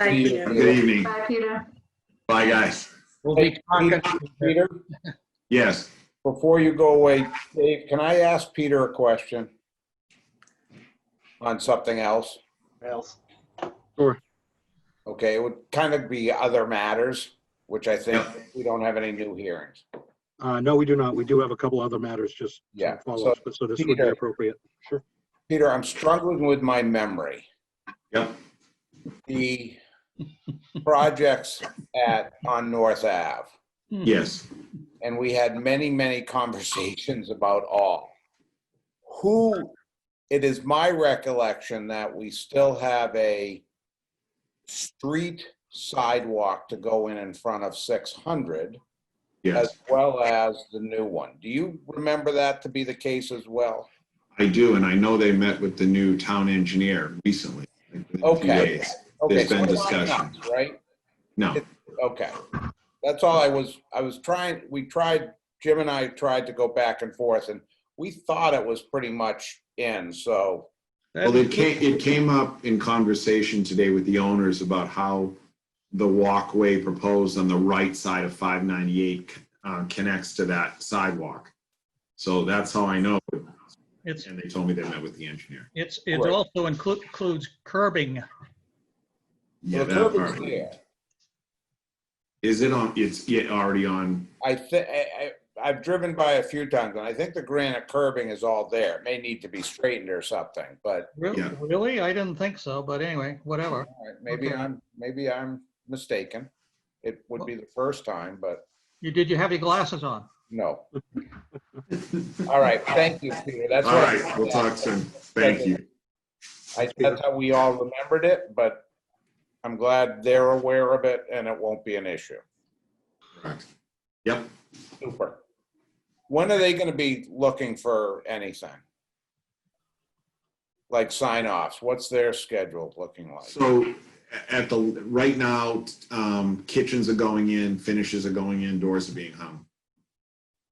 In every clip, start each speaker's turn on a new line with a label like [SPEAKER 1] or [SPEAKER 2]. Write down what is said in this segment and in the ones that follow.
[SPEAKER 1] Thank
[SPEAKER 2] Have a
[SPEAKER 1] you.
[SPEAKER 2] Good evening.
[SPEAKER 1] Bye, Peter.
[SPEAKER 2] Bye, guys.
[SPEAKER 3] We'll
[SPEAKER 4] Hey,
[SPEAKER 3] be talking.
[SPEAKER 4] Peter, Peter,
[SPEAKER 2] Yes.
[SPEAKER 4] before you go away, Dave, can I ask Peter a question? On something else?
[SPEAKER 5] else.
[SPEAKER 4] Okay, it would kind of be other matters, which I think
[SPEAKER 2] Yep.
[SPEAKER 4] we don't have any new hearings.
[SPEAKER 6] Uh, no, we do not. We do have a couple other matters just
[SPEAKER 4] Yeah, so,
[SPEAKER 6] follow-ups, but so this would be
[SPEAKER 4] Peter.
[SPEAKER 6] appropriate. Sure.
[SPEAKER 4] Peter, I'm struggling with my memory.
[SPEAKER 2] Yep.
[SPEAKER 4] The projects at, on North Ave,
[SPEAKER 2] Yes.
[SPEAKER 4] and we had many, many conversations about all. Who, it is my recollection that we still have a street sidewalk to go in in front of 600.
[SPEAKER 2] Yes.
[SPEAKER 4] as well as the new one. Do you remember that to be the case as well?
[SPEAKER 2] I do. And I know they met with the new town engineer recently. like, within a few
[SPEAKER 4] Okay.
[SPEAKER 2] days.
[SPEAKER 4] Okay,
[SPEAKER 2] There's
[SPEAKER 4] so
[SPEAKER 2] been
[SPEAKER 4] we're not
[SPEAKER 2] discussion.
[SPEAKER 4] nuts, Right?
[SPEAKER 2] No.
[SPEAKER 4] Okay. That's all I was, I was trying, we tried, Jim and I tried to go back and forth and we thought it was pretty much in, so,
[SPEAKER 2] Well, it came, it came up in conversation today with the owners about how the walkway proposed on the right side of 598 uh, connects to that sidewalk. So that's how I know.
[SPEAKER 7] It's,
[SPEAKER 2] And they told me they met with the engineer.
[SPEAKER 7] it's, it
[SPEAKER 4] Right.
[SPEAKER 7] also inclu- includes curbing.
[SPEAKER 2] Yeah,
[SPEAKER 4] the
[SPEAKER 2] that
[SPEAKER 4] curb is
[SPEAKER 2] part.
[SPEAKER 4] there.
[SPEAKER 2] Is it on, it's yeah, already on,
[SPEAKER 4] I think, I, I've driven by a few times and I think the granite curbing is all there. It may need to be straightened or something, but
[SPEAKER 7] Re-
[SPEAKER 2] Yeah.
[SPEAKER 7] Really? I didn't think so, but anyway, whatever.
[SPEAKER 4] all right, maybe
[SPEAKER 7] Okay.
[SPEAKER 4] I'm, maybe I'm mistaken. It would be the first time, but.
[SPEAKER 7] You, did you have your glasses on?
[SPEAKER 4] No. All right, thank you, Peter. That's
[SPEAKER 2] all
[SPEAKER 4] what-
[SPEAKER 2] right, we'll talk soon. Thank you.
[SPEAKER 4] I- That's how we all remembered it, but I'm glad they're aware of it and it won't be an issue.
[SPEAKER 2] Correct. Yep.
[SPEAKER 4] Super. When are they gonna be looking for anything? Like sign offs? What's their schedule looking like?
[SPEAKER 2] So a- at the, right now, um, kitchens are going in, finishes are going in, doors are being hung.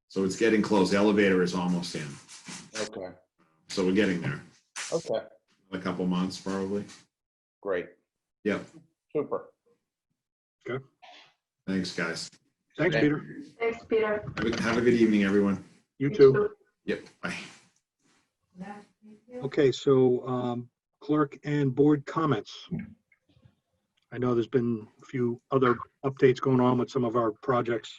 [SPEAKER 2] So it's getting close. Elevator is almost in.
[SPEAKER 4] Okay,
[SPEAKER 2] So we're getting there.
[SPEAKER 4] okay,
[SPEAKER 2] A couple months probably.
[SPEAKER 4] great.
[SPEAKER 2] Yep.
[SPEAKER 4] Super.
[SPEAKER 2] Thanks, guys.
[SPEAKER 4] Thank
[SPEAKER 6] Thanks, Peter.
[SPEAKER 1] Thanks, Peter.
[SPEAKER 2] Have a, have a good evening, everyone.
[SPEAKER 6] You too.
[SPEAKER 2] Yep. Bye.
[SPEAKER 6] Okay, so um, clerk and board comments. I know there's been a few other updates going on with some of our projects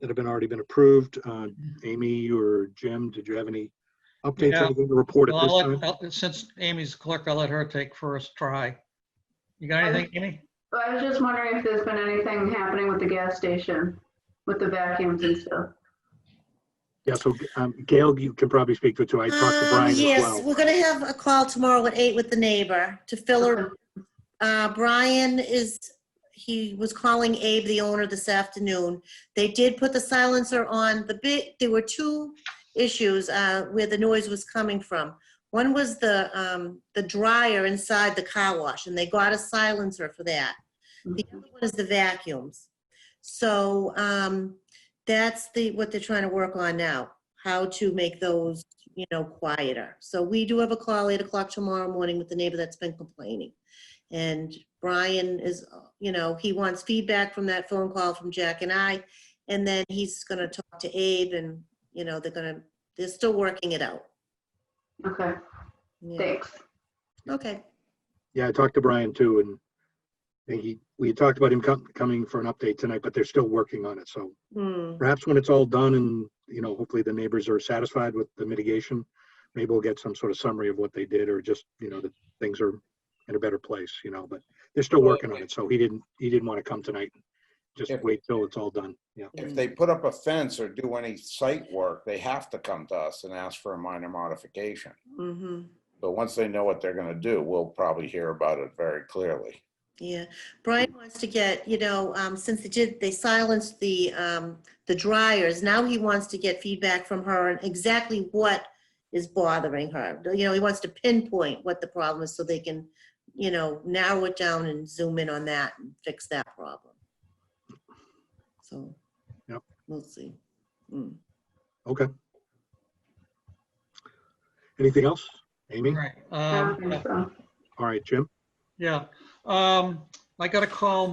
[SPEAKER 6] that have been, already been approved. Uh, Amy or Jim, did you have any updates
[SPEAKER 7] Yeah.
[SPEAKER 6] or anything to report at
[SPEAKER 7] Well,
[SPEAKER 6] this
[SPEAKER 7] I'll
[SPEAKER 6] time?
[SPEAKER 7] let- I'll- Since Amy's clerk, I'll let her take first try. You got anything, Amy?
[SPEAKER 1] Well, I was just wondering if there's been anything happening with the gas station, with the vacuums and stuff.
[SPEAKER 6] Yeah, so um, Gail, you can probably speak to it too. I talked to
[SPEAKER 8] Um,
[SPEAKER 6] Brian as
[SPEAKER 8] Yes,
[SPEAKER 6] well.
[SPEAKER 8] we're gonna have a call tomorrow at eight with the neighbor to fill her. Uh, Brian is, he was calling Abe, the owner, this afternoon. They did put the silencer on the bit, there were two issues, uh, where the noise was coming from. One was the, um, the dryer inside the car wash, and they got a silencer for that. The other one is the vacuums. So, um, that's the, what they're trying to work on now, how to make those you know, quieter. So we do have a call eight o'clock tomorrow morning with the neighbor that's been complaining. And Brian is, you know, he wants feedback from that phone call from Jack and I. And then he's gonna talk to Abe and, you know, they're gonna, they're still working it out.
[SPEAKER 1] Okay,
[SPEAKER 8] Yeah.
[SPEAKER 1] thanks.
[SPEAKER 8] Okay,
[SPEAKER 6] Yeah, I talked to Brian too, and I think he, we had talked about him com- coming for an update tonight, but they're still working on it. So
[SPEAKER 8] Hmm.
[SPEAKER 6] perhaps when it's all done and, you know, hopefully the neighbors are satisfied with the mitigation, maybe we'll get some sort of summary of what they did or just, you know, that things are in a better place, you know, but they're still working on it. So he didn't, he didn't want to come tonight. Just
[SPEAKER 4] If-
[SPEAKER 6] wait till it's all done. Yeah.
[SPEAKER 4] If they put up a fence or do any site work, they have to come to us and ask for a minor modification.
[SPEAKER 8] mhm.
[SPEAKER 4] But once they know what they're gonna do, we'll probably hear about it very clearly.
[SPEAKER 8] Yeah, Brian wants to get, you know, um, since they did, they silenced the, um, the dryers, now he wants to get feedback from her on exactly what is bothering her. You know, he wants to pinpoint what the problem is so they can, you know, narrow it down and zoom in on that and fix that problem. So.
[SPEAKER 6] Yep.
[SPEAKER 8] We'll see. Mm.
[SPEAKER 6] Okay. Anything else? Amy?
[SPEAKER 7] Right.
[SPEAKER 1] I
[SPEAKER 7] um,
[SPEAKER 1] don't think so.
[SPEAKER 6] All right, Jim?
[SPEAKER 7] Yeah. Um, I got a call